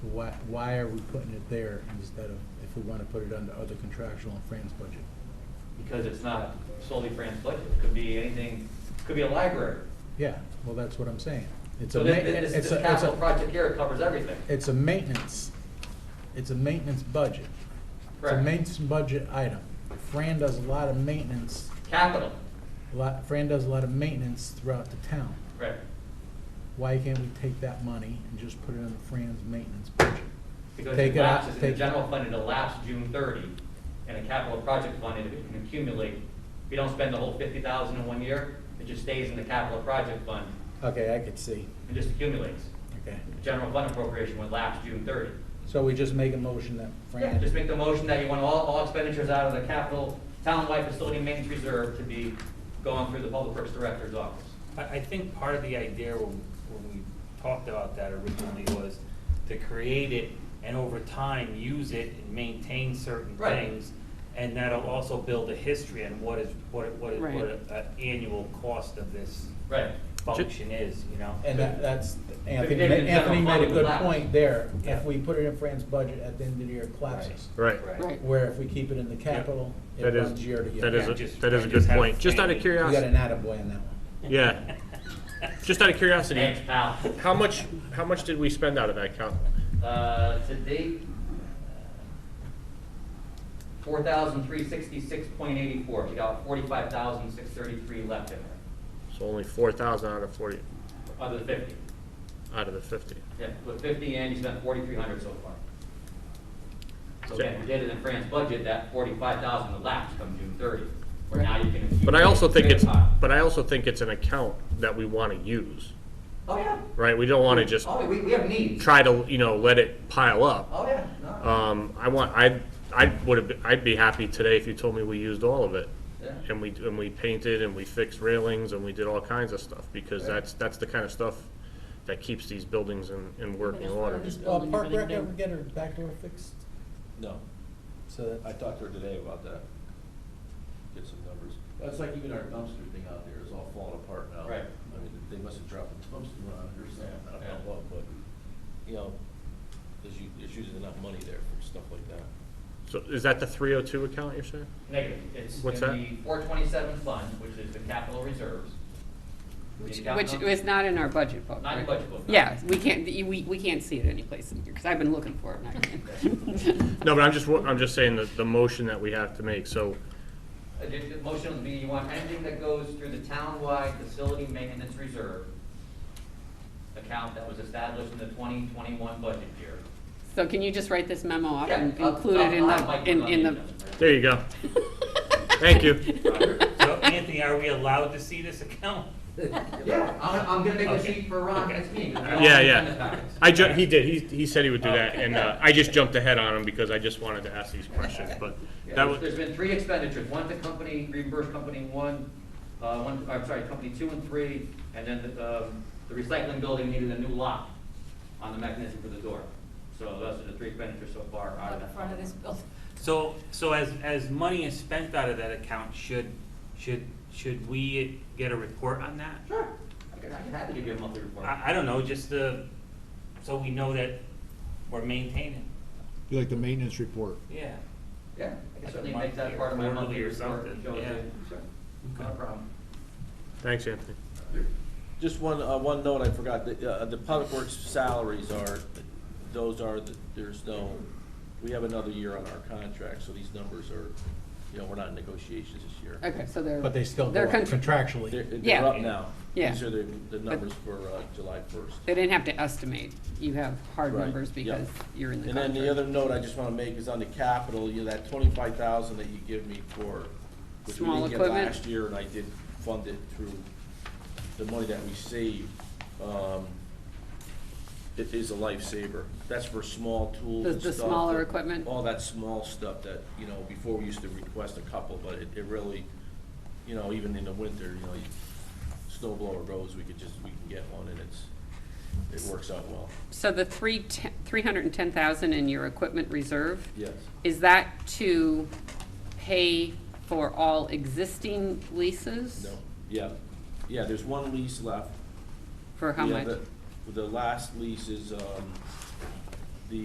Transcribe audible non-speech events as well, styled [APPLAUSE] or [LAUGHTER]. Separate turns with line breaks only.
why, why are we putting it there instead of, if we wanna put it under other contractual and Fran's budget?
because it's not solely Fran's budget, it could be anything, could be a library.
Yeah, well, that's what I'm saying. It's
So
a, ma-
thi- this,
it's
this
a, it's
capital
a,
project here covers everything.
it's a maintenance, it's a maintenance budget. It's a
Correct.
maintenance budget item. Fran does a lot of maintenance,
Capital,
a lot, Fran does a lot of maintenance throughout the town.
right,
Why can't we take that money and just put it in Fran's maintenance budget?
because
Take
it
it out,
lapses, in the
take-
general fund, it lapses June thirty, and a capital project fund, it it can accumulate. If you don't spend the whole fifty thousand in one year, it just stays in the capital project fund,
Okay, I could see,
and just accumulates.
okay.
The General fund appropriation would lapse June thirty.
So we just make a motion that
Yeah,
Fran.
just make the motion that you want all, all expenditures out of the capital townwide facility maintenance reserve to be going through the public works director's office.
I, I think part of the idea when, when we talked about that originally was to create it and over time use it and maintain certain
Right.
things. And that'll also build a history on what is, what, it- what, it-
Right.
what an annual cost of this
Right.
function is, you know?
And that, that's, Anthony,
But then the
Anthony
general
made a
fund
good
would lapse.
point there.
Yeah.
If we put it in Fran's budget at the end of the year, it collapses.
Right.
Right.
Where if we keep it in the capital, it
That is-
runs year to year.
That
Yeah,
is, a-
just-
that is a
just
good
have
point. Just out of
family. You
You got
curiosity,
an attaboy on that one.
[LAUGHS]
yeah. Just out of curiosity,
Thanks, pal.
how much, how much did we spend out of that account?
Uh, to date, four thousand three sixty-six point eighty-four, you got forty-five thousand six thirty-three left in there,
So only four thousand out of forty,
other than fifty.
out of the fifty.
Yeah, put fifty in, you spent forty-three hundred so far. So again, we did it in Fran's budget, that forty-five thousand would lapse come June thirty, where now you can.
But I also think it's,
accumulate-
but I also think it's an account that we want to use,
Oh, yeah.
right? We don't want to just
Oh, we, we have needs.
try to, you know, let it pile up.
Oh, yeah, no,
Um, I want, I, I would have, I'd be happy today if you told me we used all of it.
yeah.
And we, and we painted and we fixed railings and we did all kinds of stuff because that's, that's the kind of stuff that keeps these buildings in, in working order.
Well,
Building
Park
everything
Rec
new.
ever get her back door fixed?
No,
So
I
that,
talked to her today about that. Get some numbers. That's like even our dumpster thing out there is all falling apart now.
Right.
I mean, they must have dropped a dumpster on it or something, I don't
Yeah.
know what, but, you know, there's, u- there's usually enough money there for stuff like that.
So is that the three oh two account you're saying?
Negative, it's
What's that?
in the four twenty-seven fund, which is the capital reserves.
Which,
The account
which
number-
is not in our budget book.
Not in
right?
budget book, no.
Yeah, we can't, we, we can't see it anyplace in here, because I've been looking for it, and
[LAUGHS]
I can't.
No, but I'm just, wa- I'm just saying that the motion that we have to make, so,
Uh, the- the Motion would be you want anything that goes through the townwide facility maintenance reserve account that was established in the twenty twenty-one budget year.
So can you just write this memo up
Yeah, Uh,
and
I'll-
include it
I'll-
in
I'll
the,
like
in,
it
in
on
the,
agenda.
there you go. Thank you.
So Anthony, are we allowed to see this account?
Yeah, I'm, I'm gonna make a
Okay.
sheet for Ron next meeting.
Yeah, yeah. I ju, he did, he, he said he would do that, and, uh, I just jumped ahead on him because I just wanted to ask these questions, but
Yeah,
that
there's-
was,
There's been three expenditures, one to company, reimbursed company one, uh, one, I'm sorry, company two and three, and then the, um, the recycling building needed a new lock on the mechanism for the door. So those are the three expenditures so far out of
out
that.
the front of this building.
So, so as, as money is spent out of that account, should, should, should we get a report on that?
Sure, I can, I can have to give you a monthly report.
I, I don't know, just the, so we know that we're maintaining,
You like the maintenance report.
yeah.
Yeah, I can certainly
Like a
make that
monthly
part of my
or
monthly
quarterly or
report.
something,
Joe,
yeah.
Sure, Not a problem.
thanks, Anthony.
Just one, uh, one note I forgot, the, uh, the public works salaries are, those are, the- there's no, we have another year on our contract, so these numbers are, you know, we're not in negotiations this year.
okay, so they're.
but they still go
They're
up
contr-
They're,
contractually.
they're
Yeah.
up now.
Yeah.
These are the, the numbers for, uh, July first.
They didn't have to estimate, you have hard
Right,
numbers
yeah.
because you're in the
And then the
contract.
other note I just wanna make is on the capital, you know, that twenty-five thousand that you give me for, which we
Small
didn't get
equipment?
last year, and I did fund it through the money that we saved, um, it is a lifesaver. That's for small tools
The-
and
the
stuff,
smaller
that-
equipment?
All that small stuff that, you know, before we used to request a couple, but it, it really, you know, even in the winter, you know, you, snow blower goes, we could just, we can get one, and it's, it works out well.
So the three, three hundred and ten thousand in your equipment reserve?
Yes.
Is that to pay for all existing leases?
No, yeah, yeah, there's one lease left.
For how
Yeah,
much?
the- The last lease is, um,